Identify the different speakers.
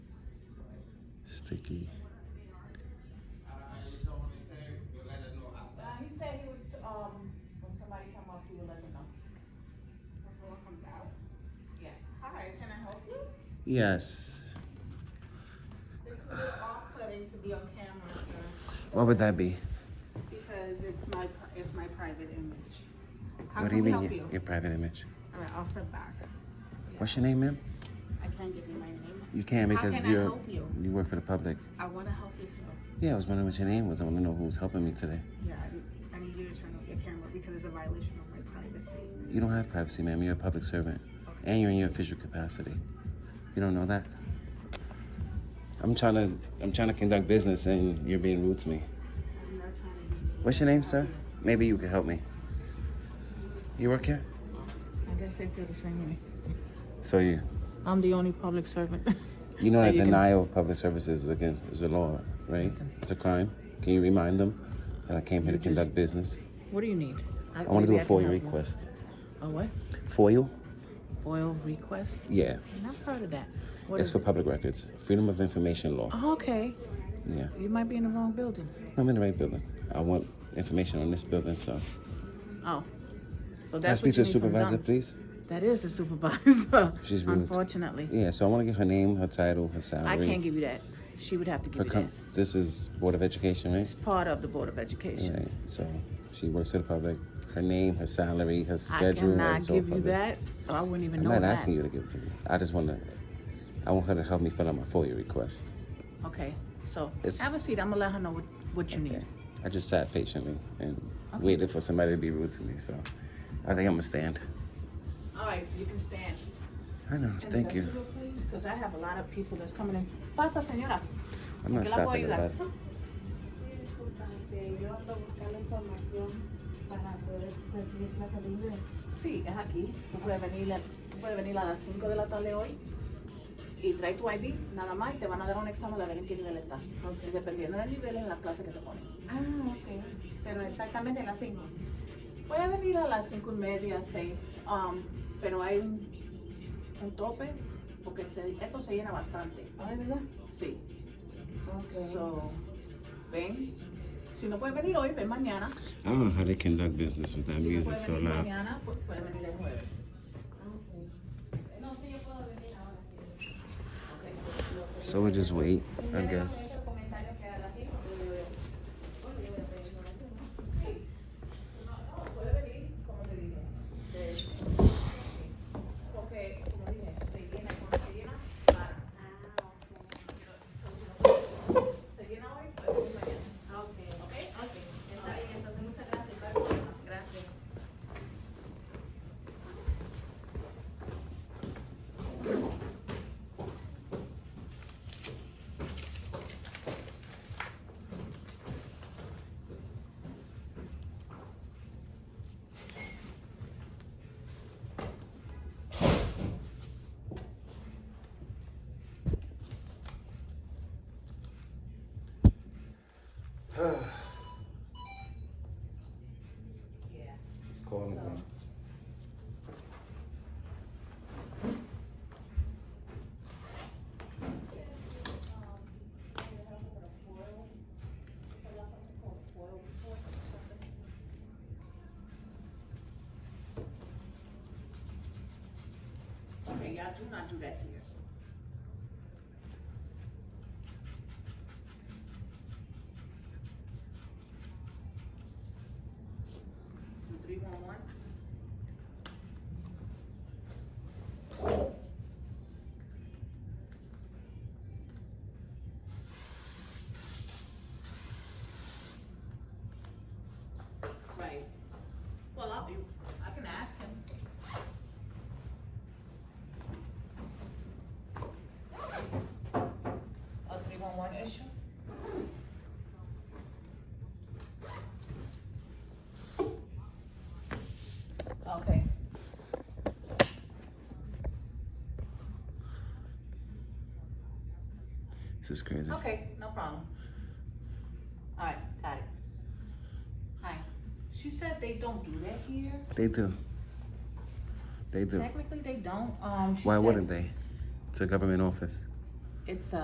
Speaker 1: Sticky.
Speaker 2: Uh, he said he would, um, when somebody come up, he would let them know.
Speaker 3: Before it comes out.
Speaker 2: Yeah.
Speaker 3: Hi, can I help you?
Speaker 1: Yes.
Speaker 3: This is off-putting to be on camera, sir,
Speaker 1: What would that be?
Speaker 3: because it's my, pri- it's my private image. How
Speaker 1: what
Speaker 3: can we
Speaker 1: y-
Speaker 3: help you?
Speaker 1: Your private image.
Speaker 3: All right, I'll step back.
Speaker 1: What's your name, ma'am?
Speaker 3: I can't give you my name.
Speaker 1: You can't
Speaker 3: How
Speaker 1: because
Speaker 3: can I
Speaker 1: you're
Speaker 3: help you?
Speaker 1: work for the public.
Speaker 3: I wanna help you, sir.
Speaker 1: Yeah, I was wondering what your name was. I want to know who's helping me today.
Speaker 3: Yeah, I need- I need you to turn off your camera because it's a violation of my privacy.
Speaker 1: You don't have privacy, ma'am. You're a public servant, and you're in your official capacity. You don't know that. I'm trying to I'm trying to conduct business, and you're being rude to me.
Speaker 3: I'm not trying to be.
Speaker 1: What's your name, sir? Maybe you can help me. You work here?
Speaker 4: I guess they feel the same way.
Speaker 1: So you
Speaker 4: I'm the only public servant.
Speaker 1: you know that
Speaker 4: you can-
Speaker 1: denial of public services is against is a law, right? It's a crime. Can you remind them that I came here to conduct business?
Speaker 4: what do you need?
Speaker 1: I want to do
Speaker 4: maybe
Speaker 1: a
Speaker 4: can
Speaker 1: FOIA
Speaker 4: help you.
Speaker 1: request.
Speaker 4: A what?
Speaker 1: FOIA?
Speaker 4: FOIL request?
Speaker 1: Yeah.
Speaker 4: And I've heard of that. What
Speaker 1: It's
Speaker 4: is
Speaker 1: for
Speaker 4: it?
Speaker 1: public records. Freedom of Information Law.
Speaker 4: Oh, okay.
Speaker 1: Yeah.
Speaker 4: You might be in the wrong building.
Speaker 1: I'm in the right building. I want information on this building, so.
Speaker 4: Oh. So
Speaker 1: Can I
Speaker 4: that's
Speaker 1: speak to the
Speaker 4: what you need from
Speaker 1: supervisor,
Speaker 4: Donna.
Speaker 1: please?
Speaker 4: That is the supervisor.
Speaker 1: She's rude.
Speaker 4: Unfortunately.
Speaker 1: Yeah, so I want to get her name, her title, her salary.
Speaker 4: I can't give you that. She would have to give
Speaker 1: her
Speaker 4: you
Speaker 1: com-
Speaker 4: that.
Speaker 1: This is Board of Education, right?
Speaker 4: It's part of the Board of Education.
Speaker 1: Right. So she works for the public. Her name, her salary, her
Speaker 4: I
Speaker 1: schedule.
Speaker 4: cannot
Speaker 1: is all
Speaker 4: give you
Speaker 1: public.
Speaker 4: that. I wouldn't even
Speaker 1: I'm
Speaker 4: know
Speaker 1: not
Speaker 4: that.
Speaker 1: asking you to give it to me. I just want to. I want her to help me fill out my FOIA request.
Speaker 4: Okay. So
Speaker 1: It's-
Speaker 4: have a seat. I'm gonna let her know what, what you need.
Speaker 1: Okay. I just sat patiently and waited for somebody to be rude to me. So I think I'm gonna stand.
Speaker 4: All right, you can stand.
Speaker 1: I know.
Speaker 4: And
Speaker 1: Thank
Speaker 4: the
Speaker 1: you.
Speaker 4: rest of Please, because I have a lot of people that's coming in. Pasa, señora.
Speaker 1: I'm not
Speaker 4: que la puedo
Speaker 1: stopping at
Speaker 4: ayudar.
Speaker 1: that.
Speaker 3: Disculpante, este, yo ando buscando información para poder recibir la salida.
Speaker 4: Sí, es aquí. Tú puedes venir, a- tú puedes venir a las 5 de la tarde hoy y trae tu ID nada más y te van a dar un examen de ver en qué nivel estás. Y dependiendo del nivel es la clase que te ponen.
Speaker 3: Ah, ok. Pero exactamente las 5.
Speaker 4: Puedes venir a las 5 y media, 6, pero hay un, un tope porque se- esto se llena bastante.
Speaker 3: Ah, ¿verdad?
Speaker 4: Sí.
Speaker 3: Ok.
Speaker 4: So, ven. Si no puedes venir hoy, ven mañana.
Speaker 1: I don't know how they conduct business with that
Speaker 4: Si no
Speaker 1: music
Speaker 4: puedes
Speaker 1: so
Speaker 4: venir
Speaker 1: loud.
Speaker 4: mañana, pues puedes venir el jueves.
Speaker 3: Ah, No, sí, yo puedo venir ahora.
Speaker 1: So we'll just wait, I guess.
Speaker 3: Comentarios que a las 5 yo le voy a- Bueno, yo voy a pedir una vez, ¿no?
Speaker 4: Puede venir, como te dije. De- Porque, como dije, se llena, cuando se llena, para. Se llena hoy, pues hoy mañana.
Speaker 3: Ah, ok.
Speaker 4: ¿Ok?
Speaker 3: Está bien, entonces muchas gracias, Carlos. Gracias.
Speaker 1: He's calling me.
Speaker 4: Okay, y'all do not do that here. Three one one? Right. Well, I'll be, I can ask him. A three one one issue? Okay.
Speaker 1: This is crazy.
Speaker 4: Okay, no problem. All right, got it. Hi. She said they don't do that here.
Speaker 1: They do. They do.
Speaker 4: Technically, they don't. Um, she
Speaker 1: Why
Speaker 4: said
Speaker 1: wouldn't they? It's a government office.
Speaker 4: It's a